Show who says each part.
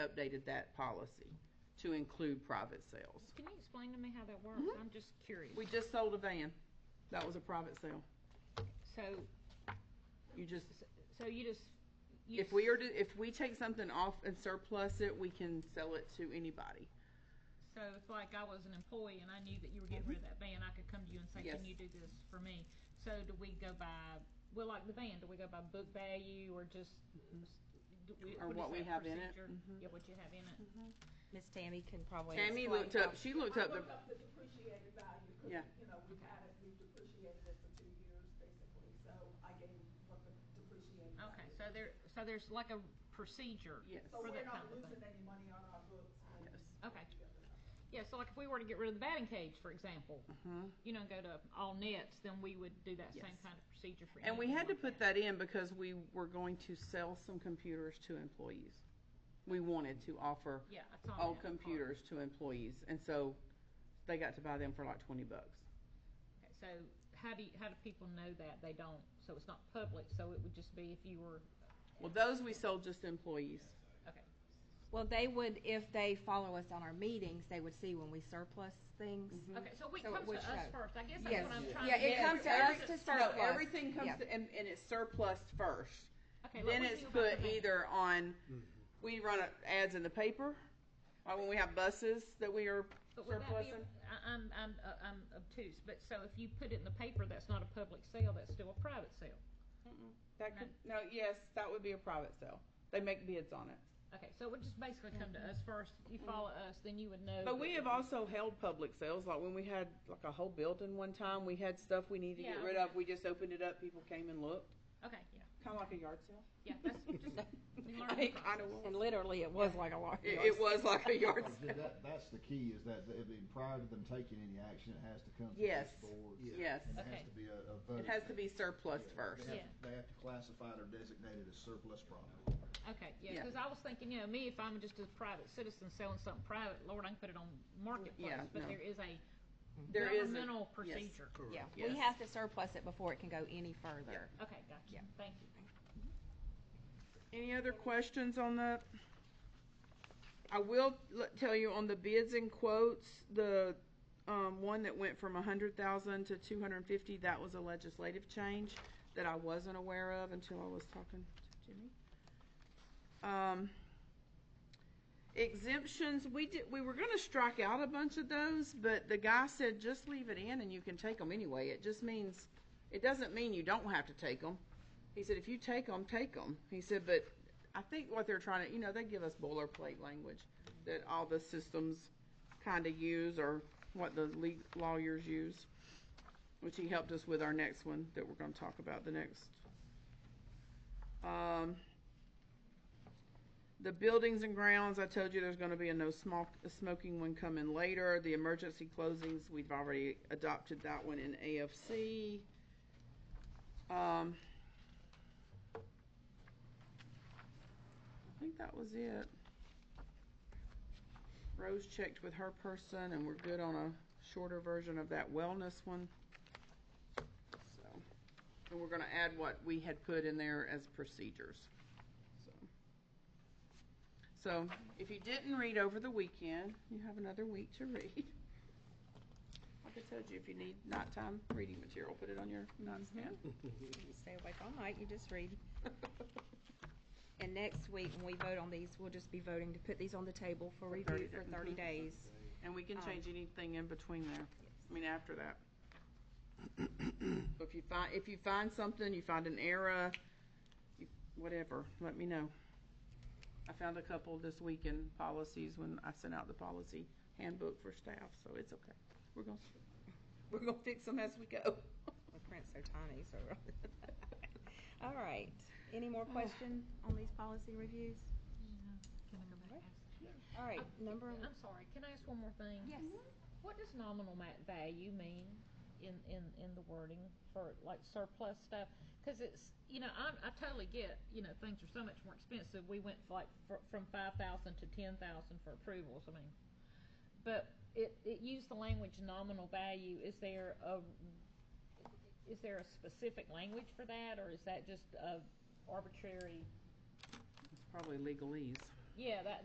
Speaker 1: updated that policy to include private sales.
Speaker 2: Can you explain to me how that works? I'm just curious.
Speaker 1: Mm-hmm. We just sold a van. That was a private sale.
Speaker 2: So,
Speaker 1: You just,
Speaker 2: so you just. you
Speaker 1: if we are, to- if we take something off and surplus it, we can sell it to anybody.
Speaker 2: So if like I was an employee and I knew that you were getting rid of that van, I could come to you and say,
Speaker 1: Mm-hmm. Yes.
Speaker 2: can you do this for me? So do we go by, well, like the van, do we go by book value or just? do we-
Speaker 1: Mm-hmm. Or
Speaker 2: is
Speaker 1: what we
Speaker 2: that
Speaker 1: have in it. Mm-hmm.
Speaker 2: procedure? Yeah, what you have in it.
Speaker 3: Miss Tammy can probably.
Speaker 1: Tammy
Speaker 3: explain
Speaker 1: looked
Speaker 3: how-
Speaker 1: up, she looked up
Speaker 4: um, I looked
Speaker 1: the,
Speaker 4: up the depreciated value,
Speaker 1: Yeah.
Speaker 4: because, you know, we've had it, we've depreciated it for two years, basically, so I gave what the depreciated
Speaker 1: Mm-hmm.
Speaker 4: value.
Speaker 2: Okay,
Speaker 4: is.
Speaker 2: so there, so there's like a procedure.
Speaker 1: Yes.
Speaker 4: So
Speaker 2: For
Speaker 4: we're
Speaker 2: that
Speaker 4: not
Speaker 2: kind of
Speaker 4: losing
Speaker 2: thing.
Speaker 4: any money on our books. when we
Speaker 1: Yes.
Speaker 4: get
Speaker 2: Okay.
Speaker 4: together.
Speaker 2: Yeah, so like if we were to get rid of the batting cage, for example, you know, go to all nets, then we would do that same
Speaker 1: Mm-hmm. Yes.
Speaker 2: kind of procedure for.
Speaker 1: and we
Speaker 2: anything
Speaker 1: had to
Speaker 2: like
Speaker 1: put that in because we were going to sell some computers to employees. We wanted to offer
Speaker 2: Yeah, I saw
Speaker 3: Oh,
Speaker 1: all
Speaker 2: that part.
Speaker 1: computers to employees, and so they got to buy them for like twenty bucks.
Speaker 2: Okay, So how do you, how do people know that they don't? So it's not public. So it would just be if you were.
Speaker 1: Well, those we sold just to employees.
Speaker 2: Okay.
Speaker 3: Well, they would, if they follow us on our meetings, they would see when we surplus things.
Speaker 1: Mm-hmm.
Speaker 2: Okay, so it
Speaker 3: Mm. So it
Speaker 2: comes
Speaker 3: would
Speaker 2: to us
Speaker 3: show.
Speaker 2: first. I guess that's
Speaker 3: Yes.
Speaker 2: what I'm trying
Speaker 3: Yeah,
Speaker 2: to
Speaker 3: it
Speaker 2: get. at.
Speaker 3: comes to us to surplus.
Speaker 1: No, everything comes
Speaker 3: Yeah.
Speaker 1: to, and, and it's surplus first.
Speaker 2: Okay,
Speaker 1: then
Speaker 2: what we
Speaker 1: it's
Speaker 2: do about
Speaker 1: put
Speaker 2: the van.
Speaker 1: either on. We run uh, ads in the paper, or when we have buses that we are
Speaker 2: But would that be,
Speaker 1: surplusing.
Speaker 2: I- I'm, I'm, uh, I'm obtuse, but so if you put it in the paper, that's not a public sale, that's still a private sale.
Speaker 1: That could no, yes, that would be a private sale. They make bids on it.
Speaker 2: Okay, so it would just basically come to
Speaker 3: Mm-hmm.
Speaker 2: us first. You follow us, then you would know.
Speaker 1: But we
Speaker 2: that-
Speaker 1: have also held public sales, like when we had like a whole building one time, we had stuff we needed to get
Speaker 2: Yeah,
Speaker 1: rid
Speaker 2: okay.
Speaker 1: of. We just opened it up, people came and looked,
Speaker 2: Okay, yeah,
Speaker 1: kind of like a yard sale.
Speaker 2: yeah, that's just, we learn
Speaker 1: It
Speaker 2: the
Speaker 1: kind of
Speaker 2: process.
Speaker 1: was.
Speaker 3: And literally, it was like a large.
Speaker 1: It, it was like a yard sale.
Speaker 5: Th- That, that's the key, is that, I mean, prior to them taking any action, it has to come to
Speaker 1: Yes.
Speaker 5: this board.
Speaker 1: Yes.
Speaker 5: And it
Speaker 2: Okay.
Speaker 5: has to be a, a vote.
Speaker 1: It has to be surplus first.
Speaker 2: Yeah.
Speaker 5: They have, they have to classify it or designate it as surplus property.
Speaker 2: Okay, yeah,
Speaker 1: Yeah.
Speaker 2: because I was thinking, you know, me, if I'm just a private citizen selling something private, Lord, I can put it on
Speaker 1: Yeah,
Speaker 2: marketplace, but
Speaker 1: no.
Speaker 2: there is a
Speaker 1: There is a-
Speaker 2: governmental
Speaker 1: yes.
Speaker 2: procedure.
Speaker 3: Yeah,
Speaker 1: Yes.
Speaker 3: we have to surplus it before it can go any further.
Speaker 2: Okay, gotcha,
Speaker 3: Yeah.
Speaker 2: thank you.
Speaker 1: Any other questions on that? I will l- tell you on the bids and quotes, the, um, one that went from a hundred thousand to two hundred and fifty, that was a legislative change that I wasn't aware of until I was talking to Jimmy. Um, exemptions, we did, we were gonna strike out a bunch of those, but the guy said, just leave it in and you can take them anyway. It just means, it doesn't mean you don't have to take them. He said, if you take them, take them. He said, but I think what they're trying to, you know, they give us boilerplate language that all the systems kind of use or what the le- lawyers use, which he helped us with our next one that we're going to talk about the next. Um, the buildings and grounds, I told you there's going to be a no small, a smoking one coming later. The emergency closings, we've already adopted that one in AFC. Um, I think that was it. Rose checked with her person, and we're good on a shorter version of that wellness one. So, and we're gonna add what we had put in there as procedures, so. So, if you didn't read over the weekend, you have another week to read. Like I told you, if you need nighttime reading material, put it on your nightstand.
Speaker 3: Stay awake all night, you just read. And next week, when we vote on these, we'll just be voting to put these on the table for review
Speaker 1: 30
Speaker 3: for
Speaker 1: days.
Speaker 3: thirty
Speaker 1: Mhm.
Speaker 3: days.
Speaker 1: And we can change anything in between there, I mean, after that. So If you find, if you find something, you find an error, you- whatever, let me know. I found a couple this week in policies when I sent out the policy handbook for staff, so it's okay. We're gonna, we're gonna fix them as we go.
Speaker 3: The print's so tiny, so. All right, any more question on these policy reviews? All right, number,
Speaker 2: I'm sorry, can I ask one more thing?
Speaker 3: yes,
Speaker 2: What does nominal ma- value mean in, in, in the wording for like surplus stuff? Because it's, you know, I'm, I totally get, you know, things are so much more expensive. We went like fr- from five thousand to ten thousand for approvals, I mean. But it, it used the language nominal value. Is there a, is there a specific language for that or is that just a arbitrary?
Speaker 1: It's probably legalese.
Speaker 2: Yeah, that,